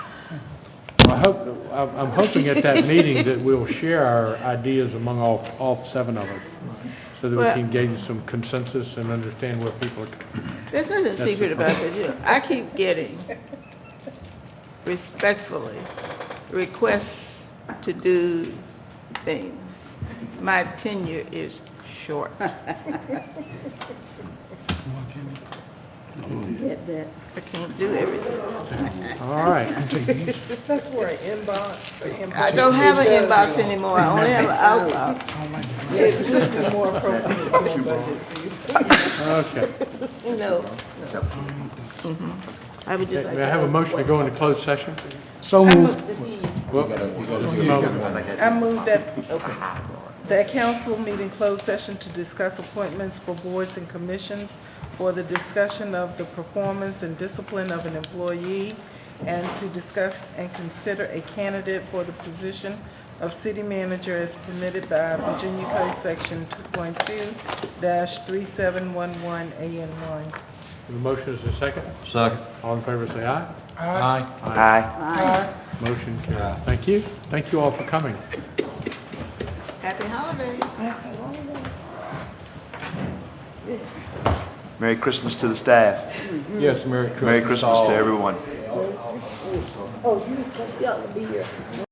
I hope, I'm I'm hoping at that meeting that we'll share our ideas among all, all seven of us, so that we Well- can gain some consensus and understand where people are coming. There's nothing That's secret it. about this, you know. I keep getting respectfully requests to do things. My tenure is short. Hmm. Get that. I can't do everything. All right. That's for an inbox, an inbox. I don't have an inbox anymore, I only have an outbox. It's just more appropriate for a budget. Okay. No. no. Mhm. I would just like May to... I have a motion to go into closed session? So moved. Well, just a moment. I move that, that council meeting closed session to discuss appointments for boards and commissions for the discussion of the performance and discipline of an employee and to discuss and consider a candidate for the position of city manager as permitted by Virginia Code Section two point two three seven one one AN one. The motion is a second. Second. All in favor, say aye. Aye. Aye. Aye. Motion carried. Thank you. Thank you all for coming. Happy holidays. Merry Christmas to the staff. Yes, Merry Christmas. Merry Christmas all. to everyone. Oh, you, y'all be here.